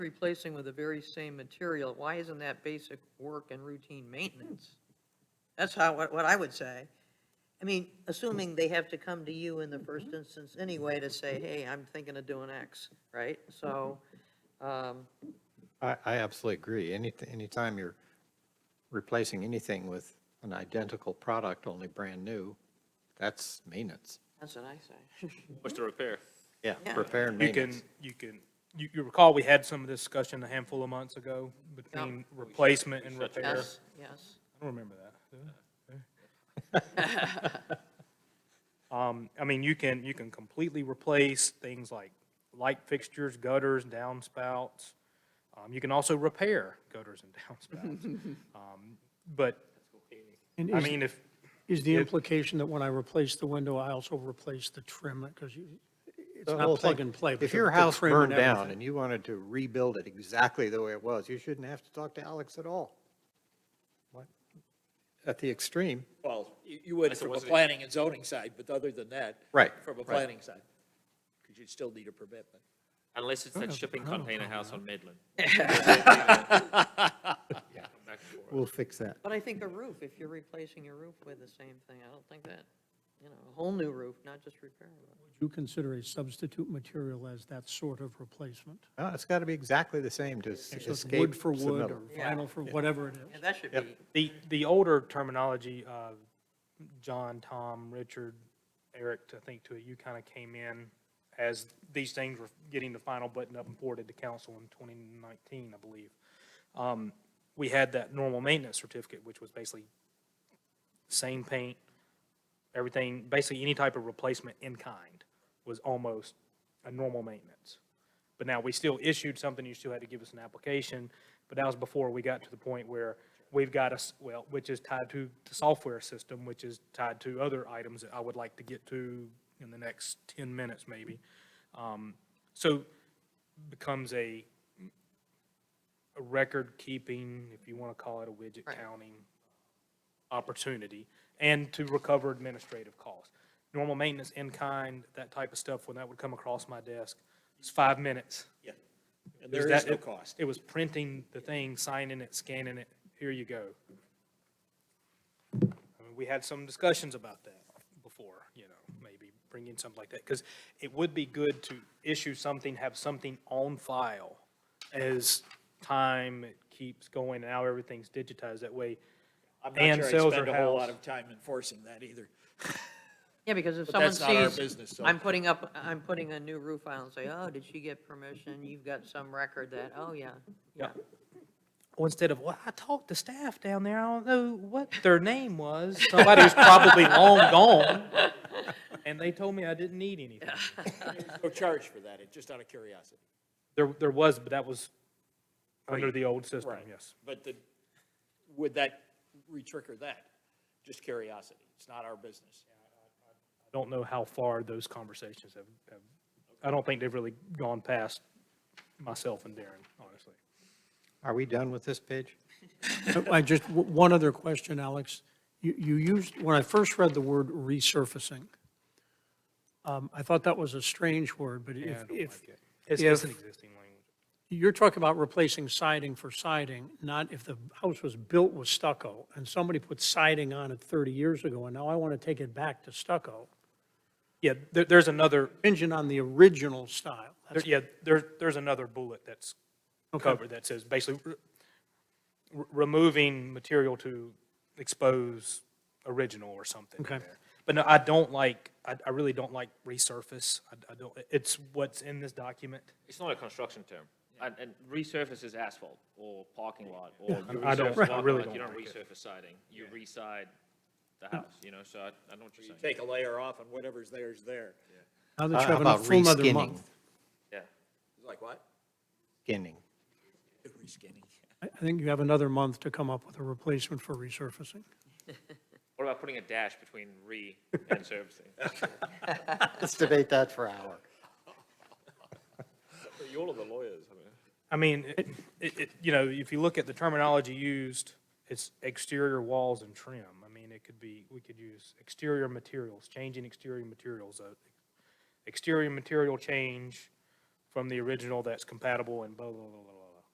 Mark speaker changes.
Speaker 1: replacing with the very same material, why isn't that basic work and routine maintenance? That's how, what, what I would say. I mean, assuming they have to come to you in the first instance anyway to say, hey, I'm thinking of doing X, right? So, um,
Speaker 2: I, I absolutely agree. Any, anytime you're replacing anything with an identical product, only brand new, that's maintenance.
Speaker 1: that's what I say.
Speaker 3: What's the repair?
Speaker 2: Yeah,
Speaker 1: Yeah.
Speaker 2: repair and
Speaker 4: You can,
Speaker 2: maintenance.
Speaker 4: you can, you, you recall, we had some of this discussion a handful of months ago between replacement and repair. I
Speaker 1: Yes, yes.
Speaker 4: don't remember that. do I? Um, I mean, you can, you can completely replace things like light fixtures, gutters, downspouts. Um, you can also repair gutters and downspouts. Um, But,
Speaker 5: And
Speaker 4: I
Speaker 5: is-
Speaker 4: mean, if,
Speaker 5: Is the implication that when I replace the window, I also replace the trim? Because you, it's
Speaker 2: The
Speaker 5: not
Speaker 2: whole
Speaker 5: plug
Speaker 2: thing.
Speaker 5: and play. but
Speaker 2: If
Speaker 5: the-
Speaker 2: your
Speaker 5: the
Speaker 2: house
Speaker 5: trim and
Speaker 2: burned down
Speaker 5: everything.
Speaker 2: and you wanted to rebuild it exactly the way it was, you shouldn't have to talk to Alex at all. What? At the extreme.
Speaker 6: Well, you, you would from a planning and zoning side, but other than that.
Speaker 2: Right,
Speaker 6: From a
Speaker 2: right.
Speaker 6: planning side, because you'd still need a permit. but-
Speaker 3: Unless it's that
Speaker 5: have a
Speaker 3: shipping
Speaker 5: problem
Speaker 3: container
Speaker 5: with
Speaker 3: house on Midland.
Speaker 2: We'll fix that.
Speaker 1: But I think a roof, if you're replacing your roof with the same thing, I don't think that, you know, a whole new roof, not just repairing it.
Speaker 5: Would you consider a substitute material as that sort of replacement?
Speaker 2: No, it's got to be exactly the same to s-
Speaker 5: So it's
Speaker 2: escape.
Speaker 5: wood for
Speaker 2: submittal.
Speaker 5: wood or vinyl for whatever it
Speaker 1: Yeah,
Speaker 5: is.
Speaker 1: that should be,
Speaker 4: The, the older terminology, uh, John, Tom, Richard, Eric, I think to it, you kind of came in as these things were getting the final button up and forwarded to council in 2019, I believe. Um, We had that normal maintenance certificate, which was basically same paint, everything, basically any type of replacement in kind was almost a normal maintenance. But now, we still issued something, you still had to give us an application, but that was before we got to the point where we've got us, well, which is tied to the software system, which is tied to other items that I would like to get to in the next ten minutes, maybe. Um, So becomes a, a record-keeping, if you want to call it a widget
Speaker 1: Right.
Speaker 4: counting opportunity, and to recover administrative costs. Normal maintenance in kind, that type of stuff, when that would come across my desk, it's five minutes.
Speaker 6: Yeah.
Speaker 4: It
Speaker 6: And
Speaker 4: was
Speaker 6: there is
Speaker 4: that-
Speaker 6: no
Speaker 4: it-
Speaker 6: cost.
Speaker 4: It was printing the thing, signing it, scanning it, here you go. I mean, we had some discussions about that before, you know, maybe bringing something like that, because it would be good to issue something, have something on file as time keeps going, now everything's digitized, that way.
Speaker 6: I'm
Speaker 4: Dan
Speaker 6: not sure
Speaker 4: sells
Speaker 6: I spend
Speaker 4: her
Speaker 6: a whole
Speaker 4: house.
Speaker 6: lot of time enforcing that either.
Speaker 1: yeah, because if
Speaker 6: But
Speaker 1: someone
Speaker 6: that's not our
Speaker 1: sees,
Speaker 6: business, so-
Speaker 1: I'm putting up, I'm putting a new roof on and say, oh, did she get permission? You've got some record that, oh, yeah, yeah.
Speaker 4: Or instead of, well, I talked to staff down there, I don't know what their name was, somebody who's probably long gone, and they told me I didn't need anything.
Speaker 6: No charge for that, it's just out of curiosity.
Speaker 4: There, there was, but that was under the old system,
Speaker 6: Right.
Speaker 4: yes.
Speaker 6: But the, would that re-trigger that? Just curiosity, it's not our business.
Speaker 4: I don't know how far those conversations have, have, I don't think they've really gone past myself and Darren, honestly.
Speaker 2: Are we done with this page?
Speaker 5: I just, w- one other question, Alex. You, you used, when I first read the word resurfacing, um, I thought that was a strange word, but if, if,
Speaker 4: It's, it's an
Speaker 5: If-
Speaker 4: existing language.
Speaker 5: You're talking about replacing siding for siding, not if the house was built with stucco and somebody put siding on it 30 years ago and now I want to take it back to stucco,
Speaker 4: Yeah, there, there's another,
Speaker 5: contingent on the original style.
Speaker 4: there-
Speaker 5: That's-
Speaker 4: yeah, there, there's another bullet that's
Speaker 5: Okay.
Speaker 4: covered that says basically re- re- removing material to expose original or something. in
Speaker 5: Okay.
Speaker 4: there. But no, I don't like, I, I really don't like resurface. I, I don't, it's what's in this document.
Speaker 3: It's not a construction term. And, and resurface is asphalt or parking lot or you
Speaker 4: I don't-
Speaker 3: resurface
Speaker 4: I
Speaker 3: parking
Speaker 4: really
Speaker 3: lot, you
Speaker 4: don't
Speaker 3: don't
Speaker 4: like
Speaker 3: resurface siding. You reside the house, Hmm. you know, so I, I know what you're saying.
Speaker 6: Take a layer off and whatever's there is there.
Speaker 5: Now that
Speaker 2: Uh, How
Speaker 5: you have a
Speaker 2: about
Speaker 5: full another
Speaker 2: reskinning?
Speaker 5: month.
Speaker 3: Yeah.
Speaker 6: It's like what?
Speaker 2: Skinning.
Speaker 6: Reskinning.
Speaker 5: I I think you have another month to come up with a replacement for resurfacing.
Speaker 3: What about putting a dash between re and servicing?
Speaker 2: Let's debate that for an hour.
Speaker 3: You're all the lawyers, I mean.
Speaker 4: I mean, it, it, it- you know, if you look at the terminology used, it's exterior walls and trim. I mean, it could be, we could use exterior materials, changing exterior materials, uh, exterior material change, from the original that's compatible and blah, blah, blah, blah, blah.